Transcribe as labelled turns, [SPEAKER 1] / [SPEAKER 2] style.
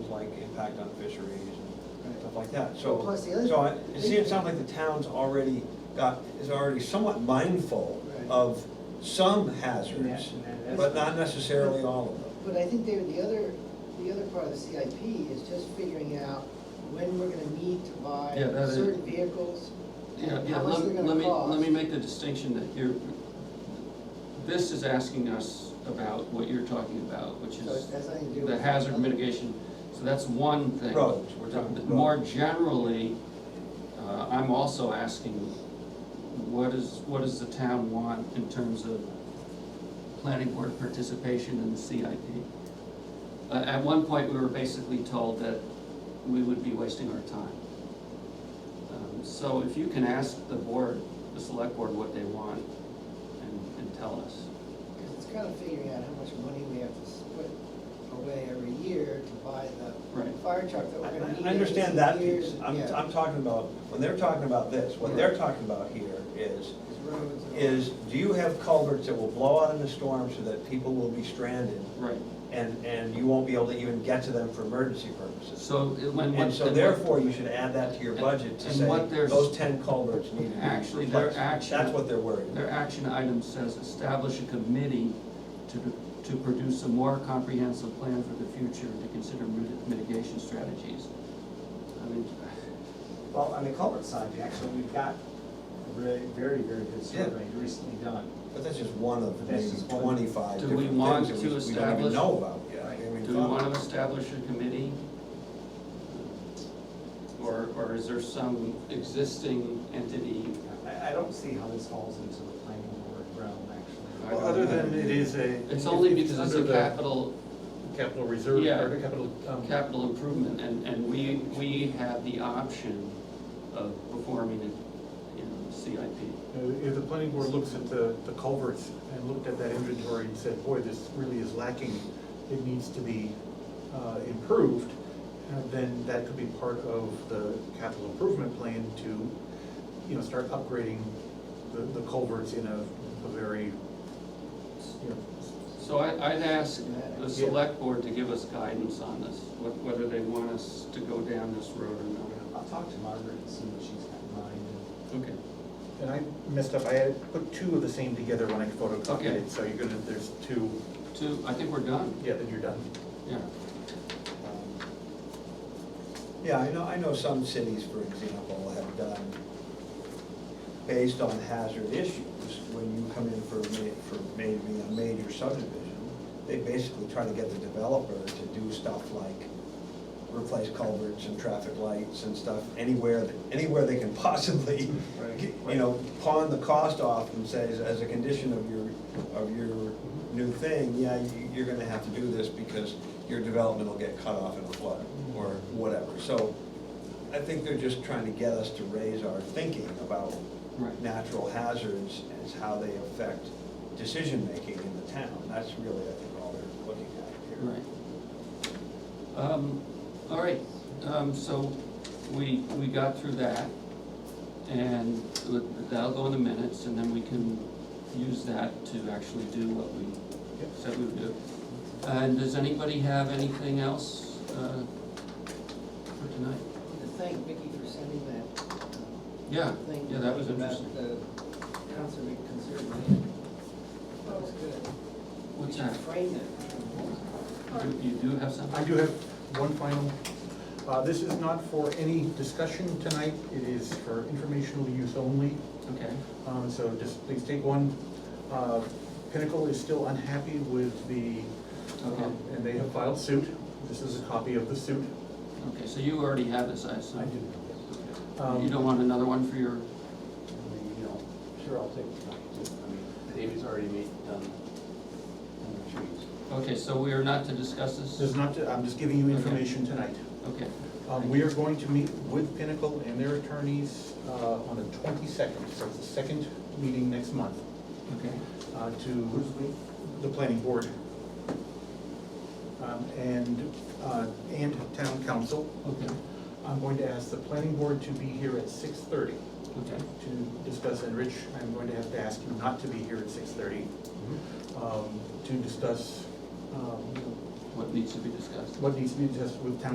[SPEAKER 1] impact on fisheries and
[SPEAKER 2] Right.
[SPEAKER 1] stuff like that, so.
[SPEAKER 2] Plus the other-
[SPEAKER 1] So it- it seems, sounds like the town's already got, is already somewhat mindful
[SPEAKER 2] Right.
[SPEAKER 1] of some hazards,
[SPEAKER 3] Yeah, and that's-
[SPEAKER 1] but not necessarily all of them.
[SPEAKER 2] But I think, David, the other, the other part of the CIP is just figuring out when we're gonna need to buy
[SPEAKER 4] Yeah, that is-
[SPEAKER 2] certain vehicles,
[SPEAKER 4] Yeah,
[SPEAKER 2] and
[SPEAKER 4] yeah,
[SPEAKER 2] how much
[SPEAKER 4] let
[SPEAKER 2] they're
[SPEAKER 4] let
[SPEAKER 2] gonna
[SPEAKER 4] me, let me
[SPEAKER 2] cost.
[SPEAKER 4] make the distinction that you're, this is asking us about what you're talking about, which
[SPEAKER 2] So it
[SPEAKER 4] is
[SPEAKER 2] has nothing to do with.
[SPEAKER 4] the hazard mitigation. So that's one thing.
[SPEAKER 1] Roads,
[SPEAKER 4] We're talking- but
[SPEAKER 1] roads.
[SPEAKER 4] More generally, uh, I'm also asking, what is, what does the town want in terms of planning board participation in the CIP? Uh, At one point, we were basically told that we would be wasting our time. Um, So if you can ask the board, the select board, what they want and, and tell us.
[SPEAKER 2] Because it's kind of figuring out how much money we have to s- put away every year to buy the
[SPEAKER 4] Right.
[SPEAKER 2] fire truck that
[SPEAKER 1] I-
[SPEAKER 2] we're gonna need.
[SPEAKER 1] I understand
[SPEAKER 2] in
[SPEAKER 1] that
[SPEAKER 2] years,
[SPEAKER 1] piece, I'm,
[SPEAKER 2] yeah,
[SPEAKER 1] I'm talking about, when they're talking about this, what they're talking about here is,
[SPEAKER 2] it's roads and all.
[SPEAKER 1] is do you have culverts that will blow out in the storm so that people will be stranded?
[SPEAKER 4] Right.
[SPEAKER 1] And, and you won't be able to even get to them for emergency purposes?
[SPEAKER 4] So it- when.
[SPEAKER 1] And so
[SPEAKER 4] when-
[SPEAKER 1] therefore, you should add that to your budget to
[SPEAKER 4] And
[SPEAKER 1] say,
[SPEAKER 4] what they're-
[SPEAKER 1] those ten culverts need to be
[SPEAKER 4] Actually, their
[SPEAKER 1] replaced."
[SPEAKER 4] action-
[SPEAKER 1] That's what they're worried about.
[SPEAKER 4] Their action item says establish a committee to, to produce a more comprehensive plan for the future and to consider mit- mitigation strategies. I mean,
[SPEAKER 3] Well, on the culvert side, actually, we've got a really, very, very good survey recently done.
[SPEAKER 1] But that's just one of
[SPEAKER 3] That's
[SPEAKER 1] maybe
[SPEAKER 3] just one.
[SPEAKER 1] twenty-five
[SPEAKER 4] Do we
[SPEAKER 1] different
[SPEAKER 4] want
[SPEAKER 1] things that we
[SPEAKER 4] to
[SPEAKER 1] we don't even
[SPEAKER 4] establish-
[SPEAKER 1] know about yet. I mean,
[SPEAKER 4] do we
[SPEAKER 1] thought-
[SPEAKER 4] want to establish a committee? Or, or is there some existing entity?
[SPEAKER 3] I, I don't see how this falls into the planning board realm,
[SPEAKER 4] I
[SPEAKER 3] actually.
[SPEAKER 4] don't
[SPEAKER 5] Well, other
[SPEAKER 4] know.
[SPEAKER 5] than it is a.
[SPEAKER 4] It's only
[SPEAKER 5] it's
[SPEAKER 4] because it's
[SPEAKER 5] under
[SPEAKER 4] a
[SPEAKER 5] the
[SPEAKER 4] capital,
[SPEAKER 5] Capital reserve,
[SPEAKER 4] Yeah.
[SPEAKER 5] or capital, um,
[SPEAKER 4] capital improvement, and, and we, we have the option of performing it in CIP.
[SPEAKER 5] uh, if the planning board looks at the, the culverts and looked at that inventory and said, boy, this really is lacking, it needs to be, uh, improved, uh, then that could be part of the capital improvement plan to, you know, start upgrading the, the culverts in a, a very, you know,
[SPEAKER 4] So I, I'd ask the select board to give us guidance on this, wh- whether they want us to go down this road or
[SPEAKER 3] I'll talk to Margaret and see what she's got in mind.
[SPEAKER 4] not. Okay.
[SPEAKER 5] And I messed up, I had put two of the same together when I photocopied
[SPEAKER 4] Okay.
[SPEAKER 5] it, so you're gonna, there's two,
[SPEAKER 4] Two, I think we're done,
[SPEAKER 5] yeah, then you're done.
[SPEAKER 4] yeah.
[SPEAKER 1] Yeah, I know, I know some cities, for example, have done, based on hazard issues, when you come in for, ma- for maybe a major subdivision, they basically try to get the developer to do stuff like replace culverts and traffic lights and stuff anywhere, that anywhere they can possibly,
[SPEAKER 2] Right.
[SPEAKER 1] you know, pawn the cost off and says, as a condition of your, of your new thing, yeah, you- you're gonna have to do this because your development will get cut off in a flood or whatever. So I think they're just trying to get us to raise our thinking about
[SPEAKER 4] Right.
[SPEAKER 1] natural hazards as how they affect decision-making in the town. That's really, I think, all they're looking at here.
[SPEAKER 4] Right. Um, all right, um, so we, we got through that, and with- that'll go in the minutes, and then we can use that to actually do what we said we would do. And does anybody have anything else, uh, for tonight?
[SPEAKER 2] To Thank Vicki for sending that uh,
[SPEAKER 4] Yeah,
[SPEAKER 2] thing.
[SPEAKER 4] yeah, that was
[SPEAKER 2] about
[SPEAKER 4] interesting.
[SPEAKER 2] the conserva- conserving land. That was good.
[SPEAKER 4] What's
[SPEAKER 2] We should
[SPEAKER 4] that?
[SPEAKER 2] Frame that.
[SPEAKER 4] You- You do have
[SPEAKER 5] I
[SPEAKER 4] something?
[SPEAKER 5] do have one final, uh, this is not for any discussion tonight, it is for informational use only.
[SPEAKER 4] Okay.
[SPEAKER 5] Um, so just please take one. Uh, Pinnacle is still unhappy with the,
[SPEAKER 4] Okay.
[SPEAKER 5] um, and they have filed suit. This is a copy of the suit.
[SPEAKER 4] Okay, so you already have this, I assume?
[SPEAKER 5] Um,
[SPEAKER 4] You don't want another one for your,
[SPEAKER 6] You know, sure, I'll take the time too. I mean, David's already made, done, done the trees.
[SPEAKER 4] okay, so we are not to discuss this?
[SPEAKER 5] This is not, I'm just giving you information tonight.
[SPEAKER 4] Okay,
[SPEAKER 5] Um, we are going to meet with Pinnacle and their attorneys, uh, on the twenty-second, so it's the second meeting next month,
[SPEAKER 4] okay.
[SPEAKER 5] uh, to the planning board. Um, and, uh, and town council.
[SPEAKER 4] Okay,
[SPEAKER 5] I'm going to ask the planning board to be here at six thirty
[SPEAKER 4] okay.
[SPEAKER 5] to discuss, and Rich, I'm going to have to ask you not to be here at six thirty, um, to discuss, um,
[SPEAKER 4] What needs to be discussed?
[SPEAKER 5] what needs to be discussed with town